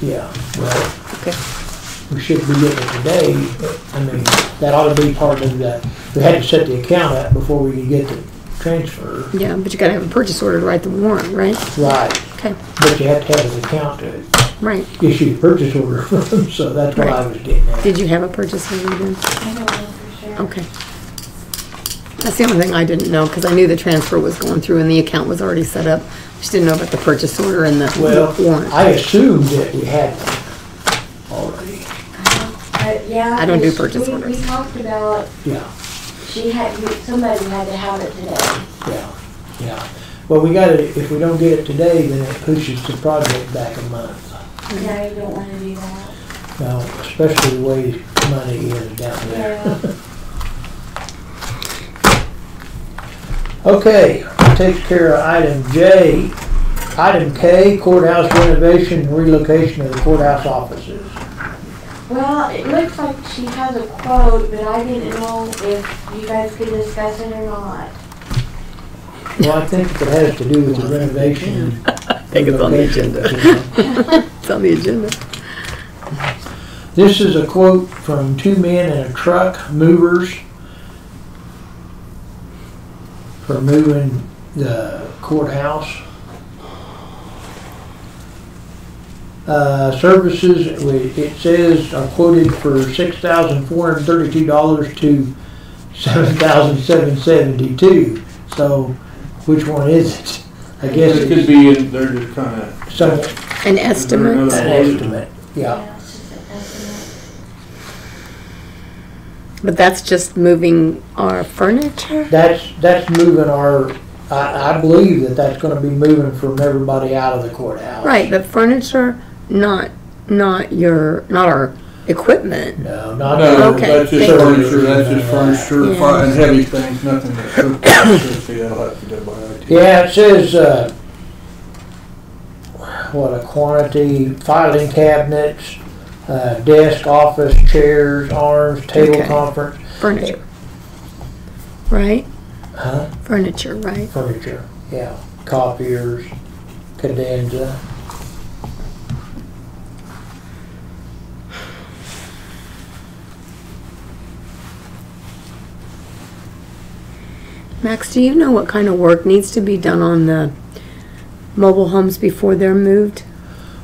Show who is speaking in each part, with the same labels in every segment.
Speaker 1: Yeah, right.
Speaker 2: Okay.
Speaker 1: We should be getting it today, but, I mean, that ought to be part of that. We had to set the account up before we could get the transfer.
Speaker 2: Yeah, but you gotta have a purchase order to write the warrant, right?
Speaker 1: Right,
Speaker 2: Okay,
Speaker 1: but you have to have an account to
Speaker 2: right.
Speaker 1: issue the purchase order from, so that's what I was getting at.
Speaker 2: Did you have a purchase order then?
Speaker 3: I don't know for sure.
Speaker 2: Okay. That's the only thing I didn't know, because I knew the transfer was going through and the account was already set up. Just didn't know about the purchase order and the
Speaker 1: Well,
Speaker 2: warrant.
Speaker 1: I assumed that we had one already,
Speaker 3: But yeah.
Speaker 2: I don't do
Speaker 3: we-
Speaker 2: purchase
Speaker 3: we-
Speaker 2: orders.
Speaker 3: We talked about,
Speaker 1: yeah.
Speaker 3: she had, we- somebody had to have it today.
Speaker 1: Yeah, yeah. Well, we gotta, if we don't get it today, then it pushes the project back a month.
Speaker 2: Mm-hmm.
Speaker 3: No, you don't wanna do that.
Speaker 1: Now, especially the way money is down there.
Speaker 3: Yeah.
Speaker 1: Okay, takes care of item J. Item K, courthouse renovation and relocation of the courthouse offices.
Speaker 3: Well, it looks like she has a quote, but I didn't know if you guys could discuss it or not.
Speaker 1: Well, I think it has to do with the renovation.
Speaker 2: I think it's on the agenda. It's on the agenda.
Speaker 1: This is a quote from two men in a truck, movers, for moving the courthouse. Uh, services, we- it says are quoted for six thousand four hundred thirty-two dollars to seven thousand seven seventy-two. So which one is it? I guess
Speaker 4: It could
Speaker 1: it's
Speaker 4: be, in- they're just kind of.
Speaker 1: some,
Speaker 2: An
Speaker 4: another-
Speaker 2: estimate,
Speaker 1: an estimate, yeah.
Speaker 3: Yeah, it's just a estimate.
Speaker 2: but that's just moving our furniture?
Speaker 1: That's, that's moving our, I, I believe that that's gonna be moving from everybody out of the courthouse.
Speaker 2: Right, the furniture, not, not your, not our equipment.
Speaker 1: No,
Speaker 4: No,
Speaker 1: not,
Speaker 2: Okay,
Speaker 4: that's just
Speaker 2: thank you.
Speaker 4: furniture, that's just furniture,
Speaker 2: Yeah.
Speaker 4: fi- and heavy things, nothing that's cooked, that's just, yeah, I'll have to go by IT.
Speaker 1: yeah, it says, uh, what a quantity, filing cabinets, uh, desk, office, chairs, arms, table
Speaker 2: Okay.
Speaker 1: conference,
Speaker 2: Furniture. Right?
Speaker 1: Huh?
Speaker 2: Furniture, right?
Speaker 1: furniture, yeah, copiers, cadenza.
Speaker 2: Max, do you know what kind of work needs to be done on the mobile homes before they're moved?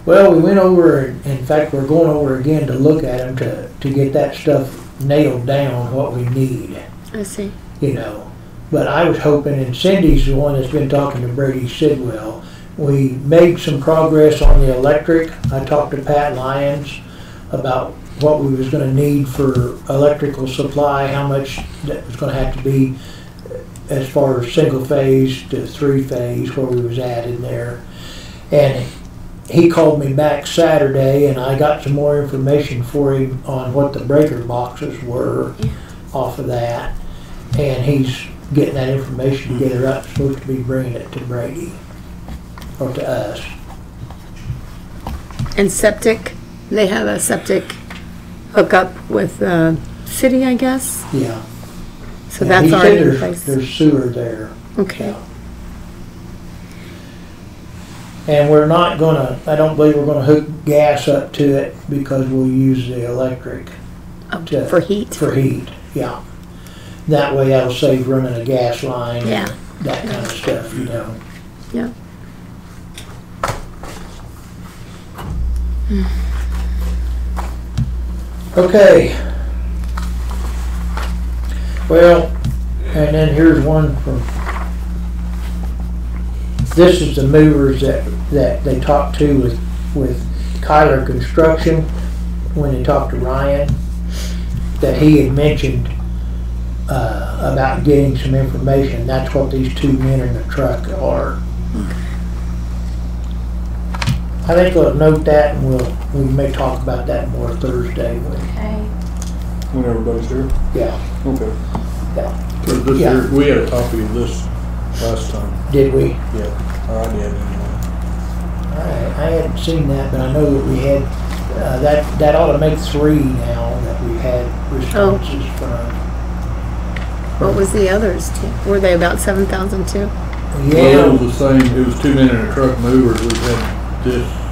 Speaker 1: Well, we went over, in fact, we're going over again to look at them to, to get that stuff nailed down, what we need.
Speaker 2: I see.
Speaker 1: you know. But I was hoping, and Cindy's the one that's been talking to Brady Sidwell. We made some progress on the electric. I talked to Pat Lyons about what we was gonna need for electrical supply, how much that was gonna have to be as far as single phase to three phase, where we was at in there. And he called me back Saturday and I got some more information for him on what the breaker boxes were off of that and he's getting that information together. I'm supposed to be bringing it to Brady or to us.
Speaker 2: And septic, they have a septic hookup with the city, I guess?
Speaker 1: Yeah.
Speaker 2: So
Speaker 1: And
Speaker 2: that's
Speaker 1: he said
Speaker 2: already in
Speaker 1: there's-
Speaker 2: place.
Speaker 1: There's sewer there.
Speaker 2: Okay,
Speaker 1: And we're not gonna, I don't believe we're gonna hook gas up to it because we'll use the electric
Speaker 2: Oh,
Speaker 1: to-
Speaker 2: for heat?
Speaker 1: for heat, yeah. That way that'll save running a gas line.
Speaker 2: Yeah,
Speaker 1: That kind of stuff, you know.
Speaker 2: yeah.
Speaker 1: Okay. Well, and then here's one from, this is the movers that, that they talked to with, with Kyler Construction when they talked to Ryan, that he had mentioned, uh, about getting some information. That's what these two men in the truck are. I think we'll note that and we'll, we may talk about that more Thursday when
Speaker 3: Okay.
Speaker 4: When everybody's here,
Speaker 1: yeah,
Speaker 4: okay.
Speaker 1: yeah.
Speaker 4: 'Cause this
Speaker 1: Yeah.
Speaker 4: here- we had a copy of this last time,
Speaker 1: Did we?
Speaker 4: yeah, or I did anyway.
Speaker 1: I, I hadn't seen that, but I know that we had, uh, that, that ought to make three now that we've had responses from.
Speaker 2: What was the others? Were they about seven thousand too?
Speaker 4: Well, it
Speaker 1: Yeah,
Speaker 4: was the same, it was two men in a truck movers, we had this